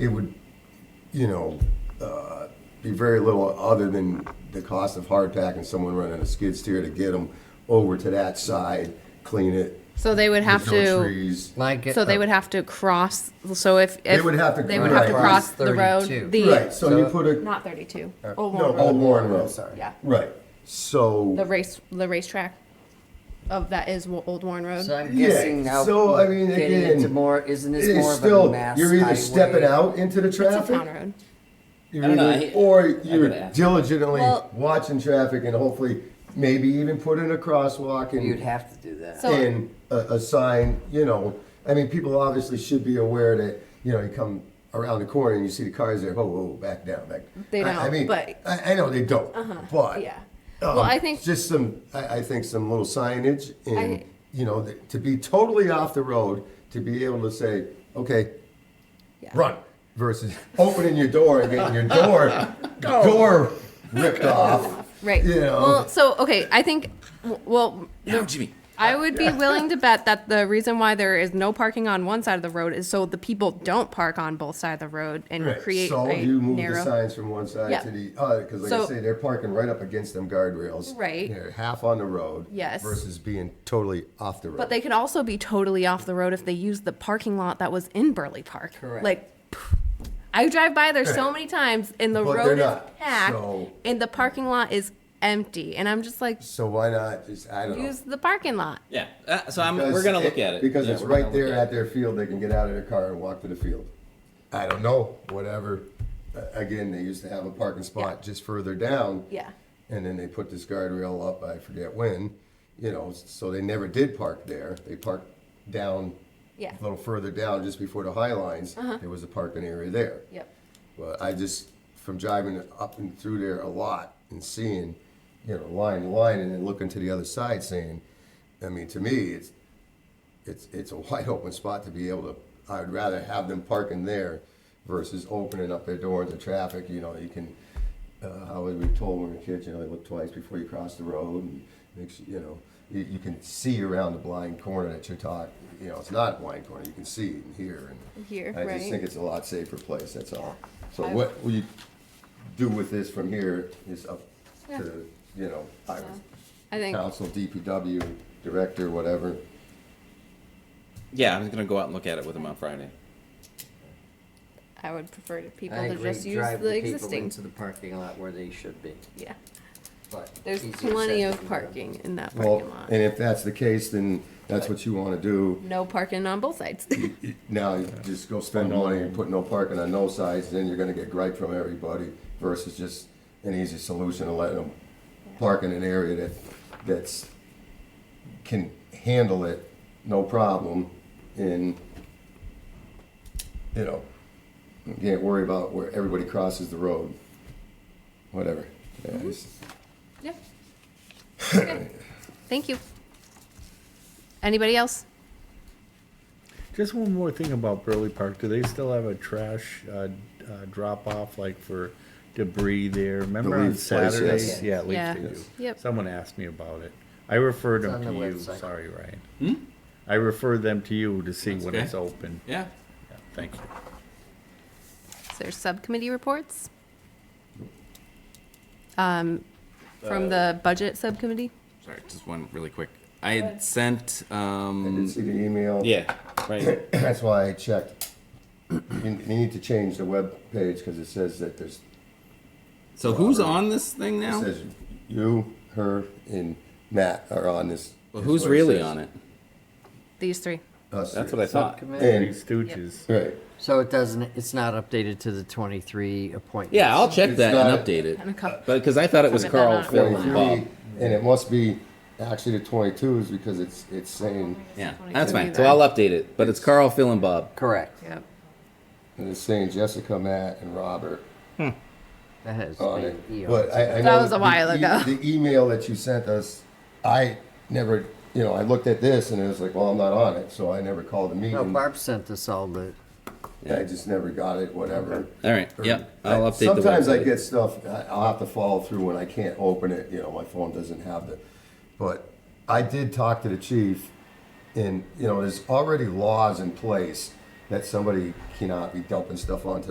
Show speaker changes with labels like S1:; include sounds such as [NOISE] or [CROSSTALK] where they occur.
S1: it would, you know, uh, be very little other than the cost of hardtack and someone running a skid steer to get them over to that side, clean it.
S2: So they would have
S1: with no
S2: to.
S1: trees.
S3: Like it,
S2: So they would have to cross. So if, if
S1: They would have to-
S2: they would have to
S1: right.
S2: cross the road.
S3: 32.
S2: The
S1: Right, so you
S3: So-
S1: put a,
S2: not thirty-two. Old
S1: no,
S2: Warren Road.
S1: Old Warren Road.
S3: Sorry.
S2: Yeah,
S1: Right,
S2: the
S1: so,
S2: race the racetrack of that is Wa- Old Warren Road.
S3: So I'm
S1: Um, Yeah,
S3: guessing now.
S1: so, I mean,
S3: getting
S1: again,
S3: into more isn't this more
S1: it's
S3: of a
S1: still,
S3: mass
S1: you're either stepping
S3: highway?
S1: out into the
S2: it's a town
S1: traffic,
S2: road.
S1: you're
S4: I don't know,
S1: either-
S4: I-
S1: or
S4: I
S1: you're
S4: gotta ask.
S1: diligently
S2: Well-
S1: watching traffic and hopefully maybe even put in a crosswalk and.
S3: You'd have to do that.
S2: So-
S1: and a, a sign, you know, I mean, people obviously should be aware that, you know, you come around the corner and you see the cars there, whoa, whoa, back down, back.
S2: They
S1: I- I
S2: don't,
S1: mean,
S2: but- Uh-huh.
S1: I, I know they don't, but.
S2: Uh, yeah.
S1: um,
S2: Well, I think-
S1: Just some, I, I think some little signage and,
S2: I-
S1: you know, th- to be totally off the road, to be able to say, okay,
S2: Yeah.
S1: run versus [LAUGHS] opening your door and getting your
S2: [LAUGHS]
S1: door,
S2: Oh.
S1: door ripped off.
S2: Right.
S1: You know.
S2: Well, so okay, I think. w- Well,
S4: Now, Jimmy.
S2: I would be willing to bet that the reason why there is no parking on one side of the road is so the people don't park on both sides of the road and
S1: Right.
S2: create
S1: so
S2: a
S1: you move
S2: narrow.
S1: the signs from one side
S2: Yeah.
S1: to the other because, like I
S2: So-
S1: say, they're parking right up against them guardrails.
S2: Right.
S1: They're half on the road.
S2: Yes.
S1: Versus being totally off the road.
S2: But they could also be totally off the road if they use the parking lot that was in Burley Park.
S3: Correct.
S2: Like, pff, I drive by there so many times, and the
S1: But they're
S2: road is
S1: not,
S2: packed,
S1: so-
S2: and the parking lot is empty, and I'm just like,
S1: so why not just I don't
S2: use
S1: know.
S2: the parking lot.
S4: Yeah. Uh, so I'm, we're
S1: Because
S4: gonna look at it
S1: because
S4: Yeah,
S1: it's
S4: we're gonna
S1: right there
S4: look
S1: at,
S4: it.
S1: their field. They can get out of their car and walk to the field. I don't know. Whatever. Uh, Again, they used to have a parking spot just further down.
S2: Yeah.
S1: And then they put this guardrail up. I forget when. You know, so they never did park there. They parked down
S2: Yeah. Uh-huh.
S1: a little further down, just before the high lines, there was a parking area there.
S2: Yep.
S1: But I just, from driving up and through there a lot and seeing, you know, line to line, and then looking to the other side, saying, I mean, to me, it's, it's, it's a wide [LAUGHS] open spot to be able to. I'd rather have them parking there versus opening up their door to traffic. You know, you can. Uh, how we were told when we were kids, you know, look twice before you cross the road, and make sure, you know you, you can see around the blind corner that you're talking. You know, it's not a blind corner; you can see and hear. And
S2: Hear,
S1: I just
S2: right.
S1: think it's a lot safer place. That's all. So
S2: I-
S1: what will you do with this from here is up
S2: Yeah.
S1: to you know I was
S2: I think.
S1: council, DPW director, whatever.
S4: Yeah, I'm gonna go out and look at it with him on Friday.
S2: I would prefer to people
S3: I
S2: to
S3: agree.
S2: just use
S3: Drive
S2: the
S3: people
S2: existing.
S3: into the parking lot where they should be.
S2: Yeah,
S3: But
S2: there's
S3: easier said
S2: plenty
S3: than
S2: of
S3: done.
S2: parking in that
S1: Well,
S2: parking lot.
S1: and if that's the case, then that's what you want to do.
S2: No parking on both sides.
S1: Mm. Now, you just go spend money and put no parking on no sides, then you're gonna get gripe from everybody versus just an easy solution of letting them park in an area that, that's, can handle it, no problem, and, you know, you can't worry about where everybody crosses the road, whatever. Yeah, it's-
S2: [LAUGHS]
S1: [LAUGHS]
S2: yeah. Okay. Thank you. Anybody else?
S5: Just one more thing about Burley Park. Do they still have a trash uh, uh, drop off like for debris there? Remember on
S1: leaf place, yes.
S5: Saturdays?
S3: Yes.
S5: Yeah, at least
S2: Yeah.
S5: they do.
S2: Yep.
S5: Someone asked me about it. I referred
S3: It's
S5: them to
S3: on the
S5: you.
S3: website.
S5: Sorry, Ryan. I referred them to you to see
S4: That's
S5: when
S4: okay.
S5: it's open.
S4: Yeah.
S5: Yeah, thank you.
S2: Is there subcommittee reports? Um, from the budget subcommittee?
S4: Sorry, just one really quick. I had sent. Um,
S1: Did see the email?
S4: yeah. Right.
S1: That's why I checked. You need to change the web page because it says that there's,
S4: So who's on this thing
S1: it
S2: Oh.
S4: now?
S1: says you, her, and Matt are on this.
S4: Well, who's really on it?
S2: These three.
S1: Us
S4: That's
S1: three.
S4: what I thought.
S3: Subcommittee.
S5: Three
S1: And,
S5: Stooges.
S1: right,
S3: So it doesn't, it's not updated to the twenty-three appointments.
S4: Yeah, I'll check
S1: It's
S4: that
S1: not-
S4: and update it.
S2: And a couple-
S4: But because I thought it was
S2: Submit that
S4: Carl,
S2: on.
S4: Phil, and Bob.
S1: twenty-three, and it must be actually the twenty-twos because it's, it's saying,
S4: Yeah,
S2: Twenty
S4: that's
S2: two
S4: fine.
S2: either.
S4: So I'll update it. But it's Carl, Phil, and Bob.
S3: Correct.
S2: Yep.
S1: and it's saying Jessica, Matt, and Robert
S3: That has
S1: on
S3: been E
S1: it. But
S3: eons.
S1: I, I know.
S2: That was a
S1: the
S2: while
S1: e-
S2: ago.
S1: The email that you sent us, I never, you know, I looked at this and it was like, well, I'm not on it, so I never called the
S3: No,
S1: meeting.
S3: Barb sent us all the,
S1: I just never got it, whatever.
S4: All right. Yep. I'll
S1: I-
S4: update the
S1: Sometimes I
S4: website.
S1: get stuff, I- I'll have to follow through when I can't open it, you know, my phone doesn't have the, but I did talk to the chief, and, you know, there's already laws in place that somebody cannot be dumping stuff onto